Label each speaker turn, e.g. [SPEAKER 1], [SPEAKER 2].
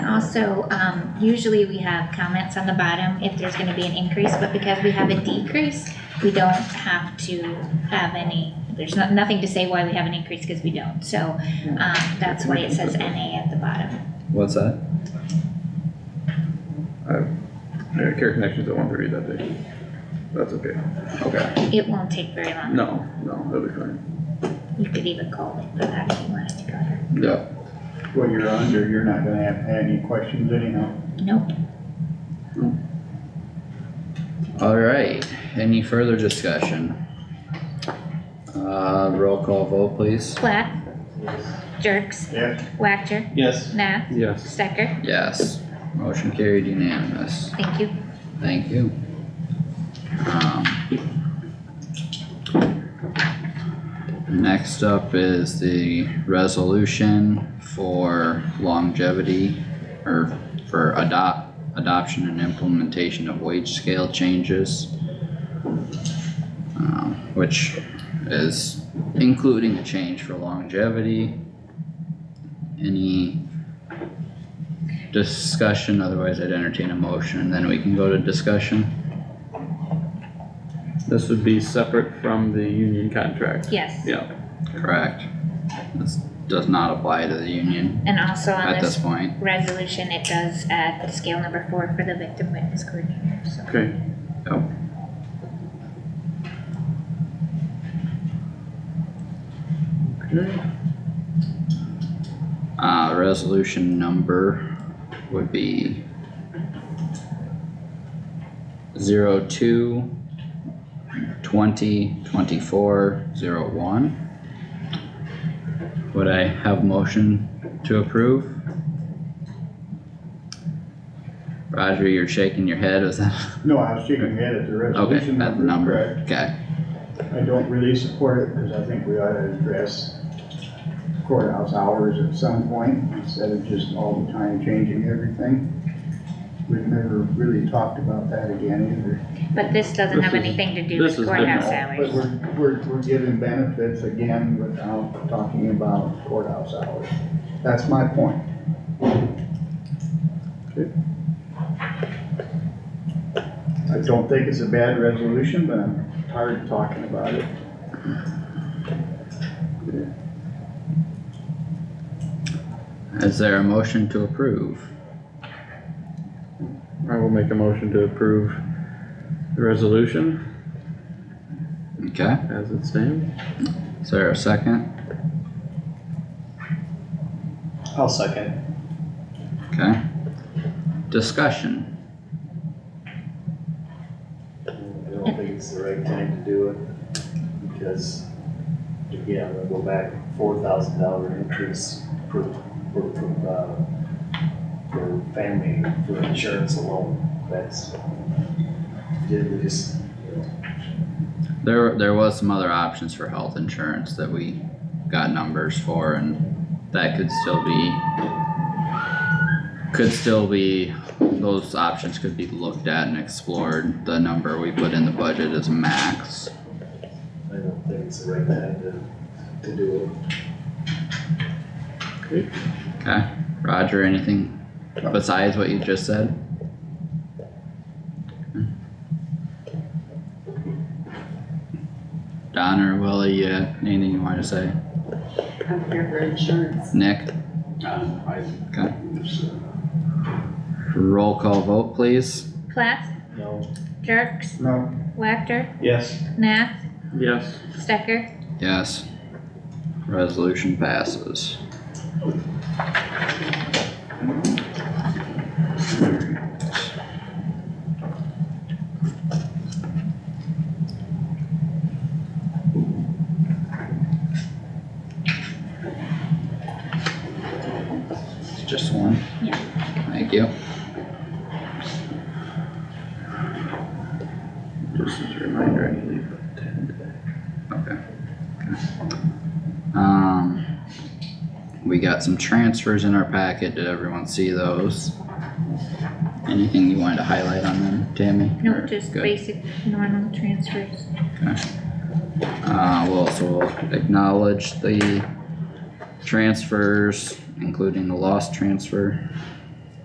[SPEAKER 1] also, um, usually we have comments on the bottom if there's gonna be an increase, but because we have a decrease, we don't have to have any, there's not, nothing to say why we have an increase, cause we don't, so, um, that's why it says NA at the bottom.
[SPEAKER 2] What's that?
[SPEAKER 3] Yeah, Care Connections at one thirty that day. That's okay. Okay.
[SPEAKER 1] It won't take very long,
[SPEAKER 3] No, no, that'll be fine.
[SPEAKER 1] you could even call it for that if you wanted to go there.
[SPEAKER 3] Yeah,
[SPEAKER 4] what you're under, you're not gonna have any questions anyhow.
[SPEAKER 1] Nope,
[SPEAKER 2] Alright, any further discussion? Uh, roll call vote please.
[SPEAKER 1] Plath? Jerks?
[SPEAKER 4] Yes,
[SPEAKER 1] Whacker?
[SPEAKER 5] Yes.
[SPEAKER 1] Nath?
[SPEAKER 3] yes.
[SPEAKER 1] Stecker?
[SPEAKER 2] Yes, motion carried unanimous.
[SPEAKER 1] Thank you.
[SPEAKER 2] Thank you. Um, Next up is the resolution for longevity or for adopt, adoption and implementation of wage scale changes. um, Which is including a change for longevity. Any discussion, otherwise I'd entertain a motion, and then we can go to discussion.
[SPEAKER 3] This would be separate from the union contract.
[SPEAKER 1] Yes,
[SPEAKER 3] Yeah,
[SPEAKER 2] Correct. This does not apply to the union
[SPEAKER 1] and also on
[SPEAKER 2] at
[SPEAKER 1] this
[SPEAKER 2] this point.
[SPEAKER 1] resolution, it does add scale number four for the victim witness coordinator, so.
[SPEAKER 3] okay.
[SPEAKER 2] Uh, resolution number would be zero two twenty twenty-four zero one. Would I have motion to approve? Roger, you're shaking your head, was that,
[SPEAKER 4] no, I was shaking my head at
[SPEAKER 2] okay,
[SPEAKER 4] the resolution
[SPEAKER 2] that
[SPEAKER 4] number,
[SPEAKER 2] number,
[SPEAKER 4] correct.
[SPEAKER 2] okay.
[SPEAKER 4] I don't really support it, cause I think we ought to address courthouse hours at some point, instead of just all the time changing everything. We've never really talked about that again either.
[SPEAKER 1] But this doesn't
[SPEAKER 3] This
[SPEAKER 1] have
[SPEAKER 3] is-
[SPEAKER 1] anything to do
[SPEAKER 3] this
[SPEAKER 1] with
[SPEAKER 3] is
[SPEAKER 1] courthouse
[SPEAKER 3] different.
[SPEAKER 4] But
[SPEAKER 1] hours.
[SPEAKER 4] we're, we're, we're giving benefits again without talking about courthouse hours. That's my point. I don't think it's a bad resolution, but I'm tired of talking about it.
[SPEAKER 2] Is there a motion to approve?
[SPEAKER 3] I will make a motion to approve the resolution
[SPEAKER 2] Okay,
[SPEAKER 3] as it stands.
[SPEAKER 2] is there a second?
[SPEAKER 5] I'll second.
[SPEAKER 2] Okay. Discussion,
[SPEAKER 6] I don't think it's the right time to do it, because, again, we'll go back, four thousand dollar increase per, per, per, uh, for family, for insurance alone, that's, did we just, you know,
[SPEAKER 2] there, there was some other options for health insurance that we got numbers for and that could still be. Could still be, those options could be looked at and explored, the number we put in the budget is max.
[SPEAKER 6] I don't think it's the right time to, to do it.
[SPEAKER 2] Okay, Roger, anything besides what you just said? Don or Willie, uh, anything you wanted to say?
[SPEAKER 7] I'm here for insurance.
[SPEAKER 2] Nick,
[SPEAKER 5] Um, I.
[SPEAKER 2] okay, roll call vote please.
[SPEAKER 1] Plath,
[SPEAKER 6] No,
[SPEAKER 1] Jerks,
[SPEAKER 4] No,
[SPEAKER 1] Whacker,
[SPEAKER 5] Yes.
[SPEAKER 1] Nath,
[SPEAKER 3] Yes,
[SPEAKER 1] Stecker,
[SPEAKER 2] Yes. Resolution passes. It's Just one?
[SPEAKER 1] Yeah.
[SPEAKER 2] Thank you.
[SPEAKER 3] just as a reminder, I need to leave at ten today.
[SPEAKER 2] Okay. Um, we got some transfers in our packet, did everyone see those? Anything you wanted to highlight on them, Tammy?
[SPEAKER 1] no,
[SPEAKER 2] Or-
[SPEAKER 1] just
[SPEAKER 2] good.
[SPEAKER 1] basic normal transfers.
[SPEAKER 2] Uh, we'll also acknowledge the transfers, including the lost transfer.